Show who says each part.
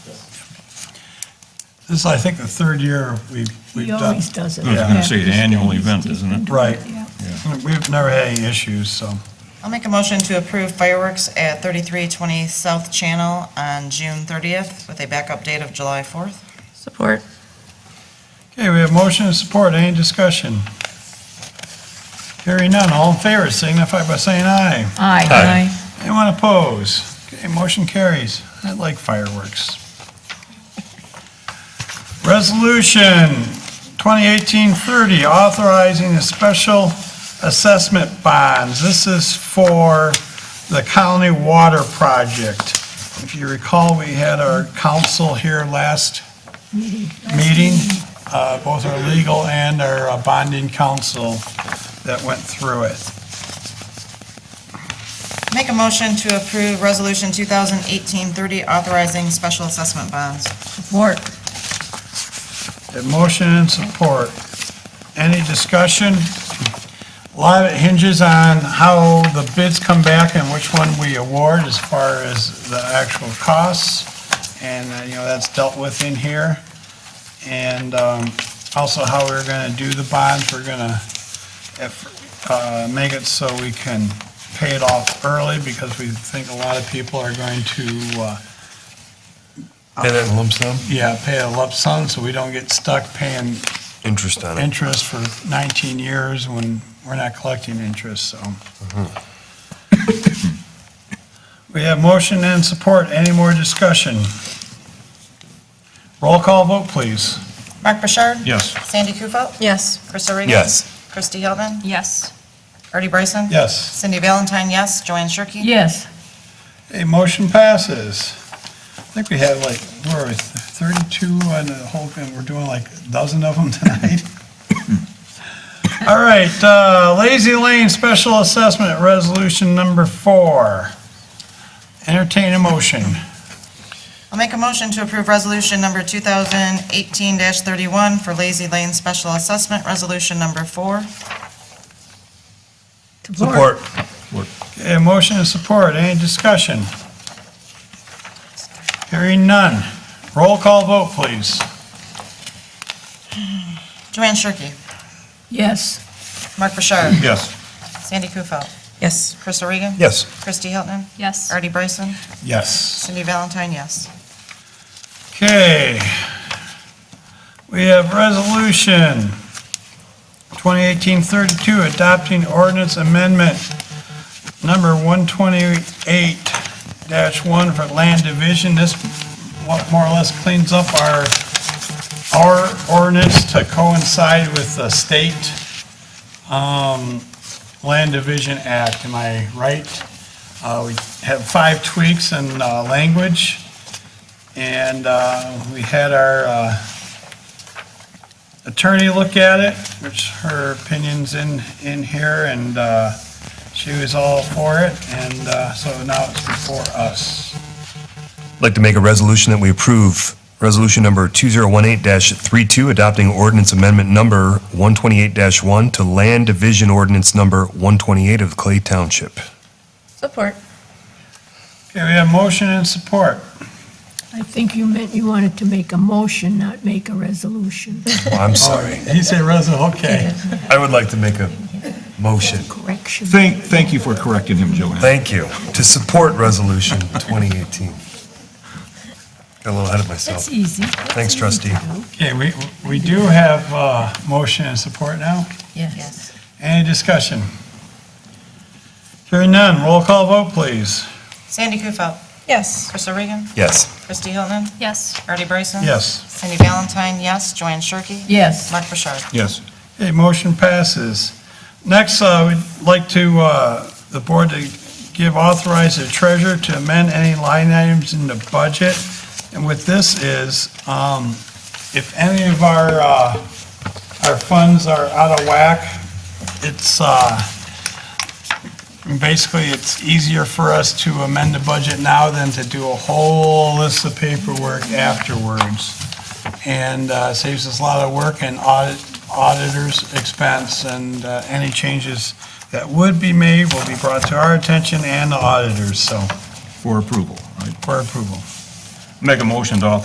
Speaker 1: This is, I think, the third year we've, we've
Speaker 2: He
Speaker 1: done.
Speaker 2: always does it.
Speaker 3: I was
Speaker 1: Yeah.
Speaker 3: gonna say, the annual event, isn't it?
Speaker 1: Right.
Speaker 2: Yeah.
Speaker 1: We've never had any issues, so.
Speaker 4: I'll make a motion to approve fireworks at 3320 South Channel on June 30th with a backup date of July 4th.
Speaker 5: Support.
Speaker 1: Okay, we have motion and support. Any discussion? Hearing none. All in favor signify by saying aye.
Speaker 2: Aye.
Speaker 3: Aye.
Speaker 1: Anyone oppose? Okay, motion carries. I like fireworks. Resolution 2018-30, authorizing a special assessment bonds. This is for the county water project. If you recall, we had our council here last meeting, uh, both our legal and our uh, bonding council that went through it.
Speaker 4: Make a motion to approve Resolution 2018-30 authorizing special assessment bonds.
Speaker 2: Support.
Speaker 1: A motion and support. Any discussion? A lot of it hinges on how the bids come back and which one we award as far as the actual costs. And, uh, you know, that's dealt with in here. And um, also how we're going to do the bonds. We're going to make it so we can pay it off early because we think a lot of people are going to uh,
Speaker 6: And then lump sum?
Speaker 1: yeah, pay a lump sum, so we don't get stuck paying
Speaker 6: Interest on it.
Speaker 1: interest for 19 years when we're not collecting interest, so. We have motion and support. Any more discussion? Roll call vote, please.
Speaker 4: Mark Bouchard?
Speaker 3: Yes.
Speaker 4: Sandy Kufel?
Speaker 5: Yes.
Speaker 4: Krista Regan?
Speaker 6: Yes.
Speaker 4: Kristi Hilton?
Speaker 5: Yes.
Speaker 4: Artie Bryson?
Speaker 1: Yes.
Speaker 4: Cindy Valentine, yes. Joanne Shirkey?
Speaker 2: Yes.
Speaker 1: A motion passes. I think we had like, where are we, 32 on the whole, and we're doing like a dozen of them tonight. All right, uh, Lazy Lane Special Assessment Resolution Number Four. Entertain a motion.
Speaker 4: I'll make a motion to approve Resolution Number 2018-31 for Lazy Lane Special Assessment, Resolution Number 4.
Speaker 6: Support.
Speaker 1: A motion and support, any discussion? Hearing none. Roll call vote, please.
Speaker 4: Joanne Shirkey?
Speaker 2: Yes.
Speaker 4: Mark Bouchard?
Speaker 3: Yes.
Speaker 4: Sandy Kufel?
Speaker 5: Yes.
Speaker 4: Krista Regan?
Speaker 6: Yes.
Speaker 4: Kristi Hilton?
Speaker 5: Yes.
Speaker 4: Artie Bryson?
Speaker 1: Yes.
Speaker 4: Cindy Valentine, yes.
Speaker 1: Okay. We have Resolution 2018-32, adopting ordinance amendment number 128-1 for land division. This what more or less cleans up our, our ordinance to coincide with the state um, Land Division Act. Am I right? Uh, We have five tweaks in uh, language. And uh, we had our uh, attorney look at it, which her opinion's in, in here, and uh, she was all for it, and uh, so now it's before us.
Speaker 6: I'd like to make a resolution that we approve Resolution Number 2018-32, adopting ordinance amendment number 128-1 to Land Division Ordinance Number 128 of Clay Township.
Speaker 5: Support.
Speaker 1: Okay, we have motion and support.
Speaker 2: I think you meant you wanted to make a motion, not make a resolution.
Speaker 6: Well, I'm sorry.
Speaker 1: He said resolution, okay.
Speaker 6: I would like to make a motion.
Speaker 2: Correction.
Speaker 3: Thank, thank you for correcting him, Joanne.
Speaker 6: Thank you. To support Resolution 2018. Got a little ahead of myself.
Speaker 2: That's easy.
Speaker 6: Thanks, trustee.
Speaker 1: Okay, we, we do have uh, motion and support now.
Speaker 5: Yes.
Speaker 1: Any discussion? Hearing none, roll call vote, please.
Speaker 4: Sandy Kufel?
Speaker 5: Yes.
Speaker 4: Krista Regan?
Speaker 6: Yes.
Speaker 4: Kristi Hilton?
Speaker 5: Yes.
Speaker 4: Artie Bryson?
Speaker 1: Yes.
Speaker 4: Cindy Valentine, yes. Joanne Shirkey?
Speaker 2: Yes.
Speaker 4: Mark Bouchard?
Speaker 3: Yes.
Speaker 1: Okay, motion passes. Next, uh, we'd like to, uh, the board to give authorize the treasurer to amend any line items in the budget. And what this is, um, if any of our, uh, our funds are out of whack, it's, uh, basically, it's easier for us to amend the budget now than to do a whole list of paperwork afterwards. And uh, saves us a lot of work and audit auditor's expense, and uh, any changes that would be made will be brought to our attention and the auditors, so,
Speaker 3: For approval, right?
Speaker 1: for approval.
Speaker 3: Make a motion to authorize